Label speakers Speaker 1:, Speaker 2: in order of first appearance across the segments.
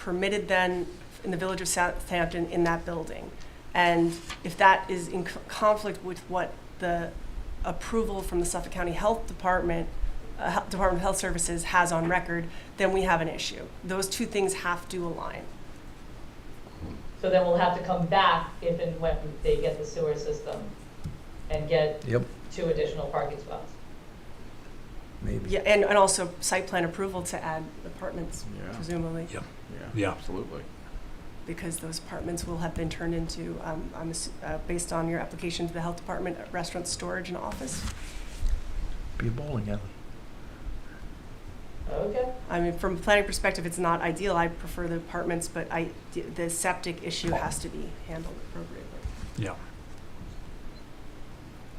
Speaker 1: permitted then in the village of Southampton in that building. And if that is in co- conflict with what the approval from the Suffolk County Health Department, uh, Health- Department of Health Services has on record, then we have an issue. Those two things have to align.
Speaker 2: So then we'll have to come back if and when they get the sewer system and get
Speaker 3: Yep,
Speaker 2: two additional parking spots.
Speaker 3: maybe.
Speaker 1: Yeah, and, and also site plan approval to add apartments
Speaker 4: Yeah,
Speaker 1: presumably,
Speaker 4: yeah,
Speaker 3: Yeah.
Speaker 4: absolutely.
Speaker 1: because those apartments will have been turned into, um, I'm, ass- uh, based on your application to the health department, restaurant, storage, and office.
Speaker 3: Be a bowling alley.
Speaker 2: Okay,
Speaker 1: I mean, from a planning perspective, it's not ideal. I prefer the apartments, but I, the septic issue has to be handled appropriately.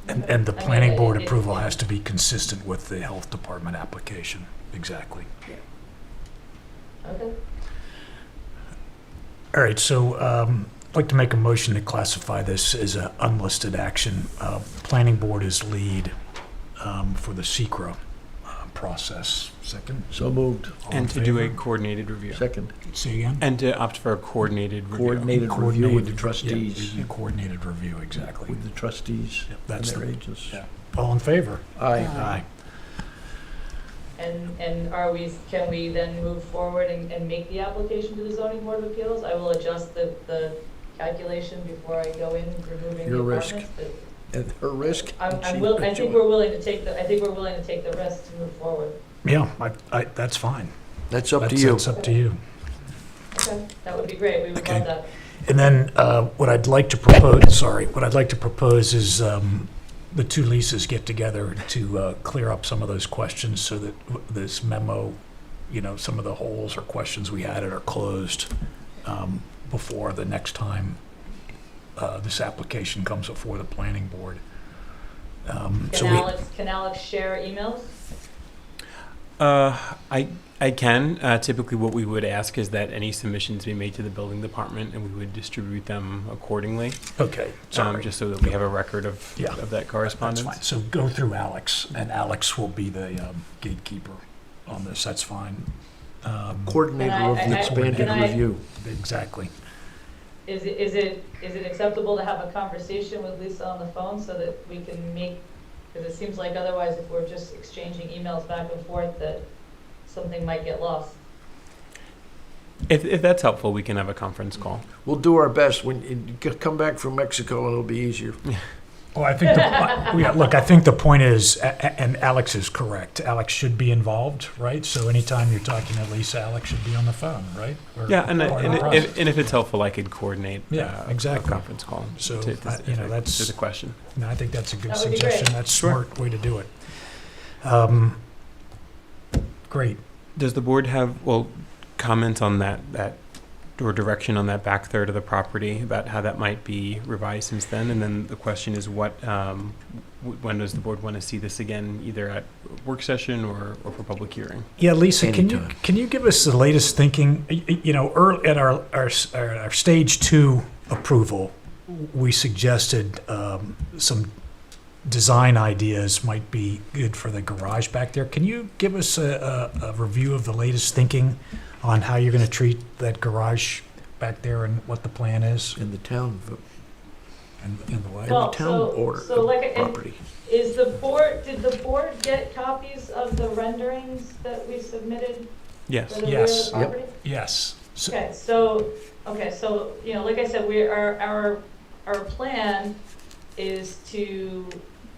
Speaker 5: And, and the
Speaker 2: Okay,
Speaker 5: planning board
Speaker 2: it-
Speaker 5: approval has to be consistent with the health department application, exactly.
Speaker 2: okay.
Speaker 5: All right, so um, I'd like to make a motion to classify this as an unlisted action. Uh, Planning board is lead um, for the SECR process. Second?
Speaker 3: So moved.
Speaker 5: All in
Speaker 4: And to do a
Speaker 5: favor?
Speaker 4: coordinated review.
Speaker 3: Second,
Speaker 5: Say again?
Speaker 4: And to opt for a coordinated review.
Speaker 3: coordinated review with the
Speaker 5: Coordinated,
Speaker 3: trustees,
Speaker 5: Yeah, a coordinated review, exactly.
Speaker 3: with the trustees
Speaker 5: Yep,
Speaker 3: and
Speaker 5: That's
Speaker 3: their
Speaker 5: the,
Speaker 3: agents.
Speaker 5: yeah. all in favor?
Speaker 3: Aye.
Speaker 2: And, and are we, can we then move forward and, and make the application to the zoning board of appeals? I will adjust the, the calculation before I go in removing the
Speaker 3: Your risk.
Speaker 2: apartments. but
Speaker 3: At her risk.
Speaker 2: I'm,
Speaker 3: and she
Speaker 2: I'm will, I
Speaker 3: could
Speaker 2: think
Speaker 3: do it.
Speaker 2: we're willing to take the, I think we're willing to take the risk to move forward.
Speaker 5: Yeah, I, I, that's fine.
Speaker 3: That's up to
Speaker 5: That's-
Speaker 3: you.
Speaker 5: That's up to you.
Speaker 2: Okay, that would be great, we would
Speaker 5: Okay.
Speaker 2: love that.
Speaker 5: And then uh, what I'd like to propose, sorry, what I'd like to propose is um, the two leases get together to uh, clear up some of those questions so that w- this memo, you know, some of the holes or questions we had are closed um, before the next time uh, this application comes before the planning board. Um, So
Speaker 2: Can
Speaker 5: we,
Speaker 2: Alex, can Alex share emails?
Speaker 4: Uh, I, I can. Uh, typically, what we would ask is that any submissions be made to the building department, and we would distribute them accordingly,
Speaker 5: okay,
Speaker 4: um,
Speaker 5: sorry.
Speaker 4: just so that we have a record of,
Speaker 5: Yeah.
Speaker 4: of that
Speaker 5: That's
Speaker 4: correspondence.
Speaker 5: fine. So go through Alex, and Alex will be the um, gatekeeper on this, that's fine. Um,
Speaker 3: Coordinated
Speaker 2: Can I-
Speaker 3: review,
Speaker 2: I-
Speaker 3: expanded
Speaker 2: can I-
Speaker 3: review.
Speaker 5: Exactly.
Speaker 2: Is it, is it, is it acceptable to have a conversation with Lisa on the phone so that we can make, because it seems like otherwise if we're just exchanging emails back and forth, that something might get lost.
Speaker 4: If, if that's helpful, we can have a conference call.
Speaker 3: We'll do our best. When you c- come back from Mexico, it'll be easier.
Speaker 5: Well, I think, the, uh, yeah, look, I think the point is, a- a- and Alex is correct, Alex should be involved, right? So anytime you're talking to Lisa, Alex should be on the phone, right? Or
Speaker 4: Yeah, and,
Speaker 5: part of the
Speaker 4: and,
Speaker 5: process.
Speaker 4: if, and if it's helpful, I could coordinate
Speaker 5: Yeah,
Speaker 4: uh,
Speaker 5: exactly.
Speaker 4: a conference call.
Speaker 5: So,
Speaker 4: to, to,
Speaker 5: I- you
Speaker 4: if
Speaker 5: know,
Speaker 4: I-
Speaker 5: that's-
Speaker 4: to the question.
Speaker 5: No, I think that's a good
Speaker 2: That would be great.
Speaker 5: suggestion, that's a
Speaker 4: Sure.
Speaker 5: smart way to do it. Um, Great,
Speaker 4: Does the board have, well, comments on that, that, or direction on that back third of the property about how that might be revised since then? And then the question is what, um, w- when does the board want to see this again, either at work session or, or for public hearing?
Speaker 5: Yeah, Lisa, can you,
Speaker 3: Anytime.
Speaker 5: can you give us the latest thinking? Y- y- You know, early, at our, our, s- our our stage two approval, we suggested um, some design ideas might be good for the garage back there. Can you give us a, a, a review of the latest thinking on how you're gonna treat that garage back there and what the plan is
Speaker 3: In the town, v-
Speaker 5: and, and the like?
Speaker 3: in the
Speaker 2: Well,
Speaker 3: town
Speaker 2: so-
Speaker 3: order,
Speaker 2: so like I-
Speaker 3: property.
Speaker 2: Is the board, did the board get copies of the renderings that we submitted for
Speaker 4: Yes.
Speaker 2: the rear of
Speaker 5: Yes.
Speaker 2: the
Speaker 5: Yep.
Speaker 2: property?
Speaker 5: Yes. So-
Speaker 2: Okay, so, okay, so, you know, like I said, we are, our, our plan is to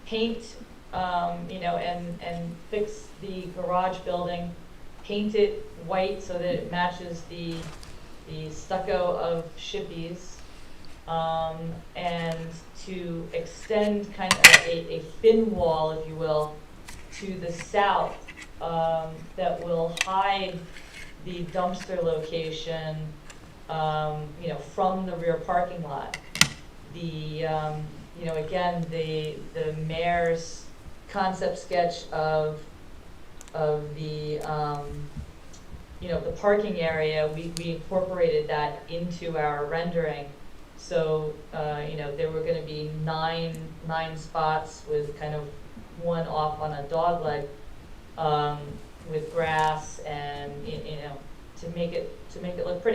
Speaker 2: paint, um, you know, and, and fix the garage building, paint it white so that it matches the, the stucco of Shippies, um, and to extend kind of a, a fin wall, if you will, to the south, um, that will hide the dumpster location, um, you know, from the rear parking lot. The, um, you know, again, the, the mayor's concept sketch of, of the, um, you know, the parking area, we, we incorporated that into our rendering. So, uh, you know, there were gonna be nine, nine spots with kind of one off on a dogleg, um, with grass and, y- you know, to make it, to make it look pretty.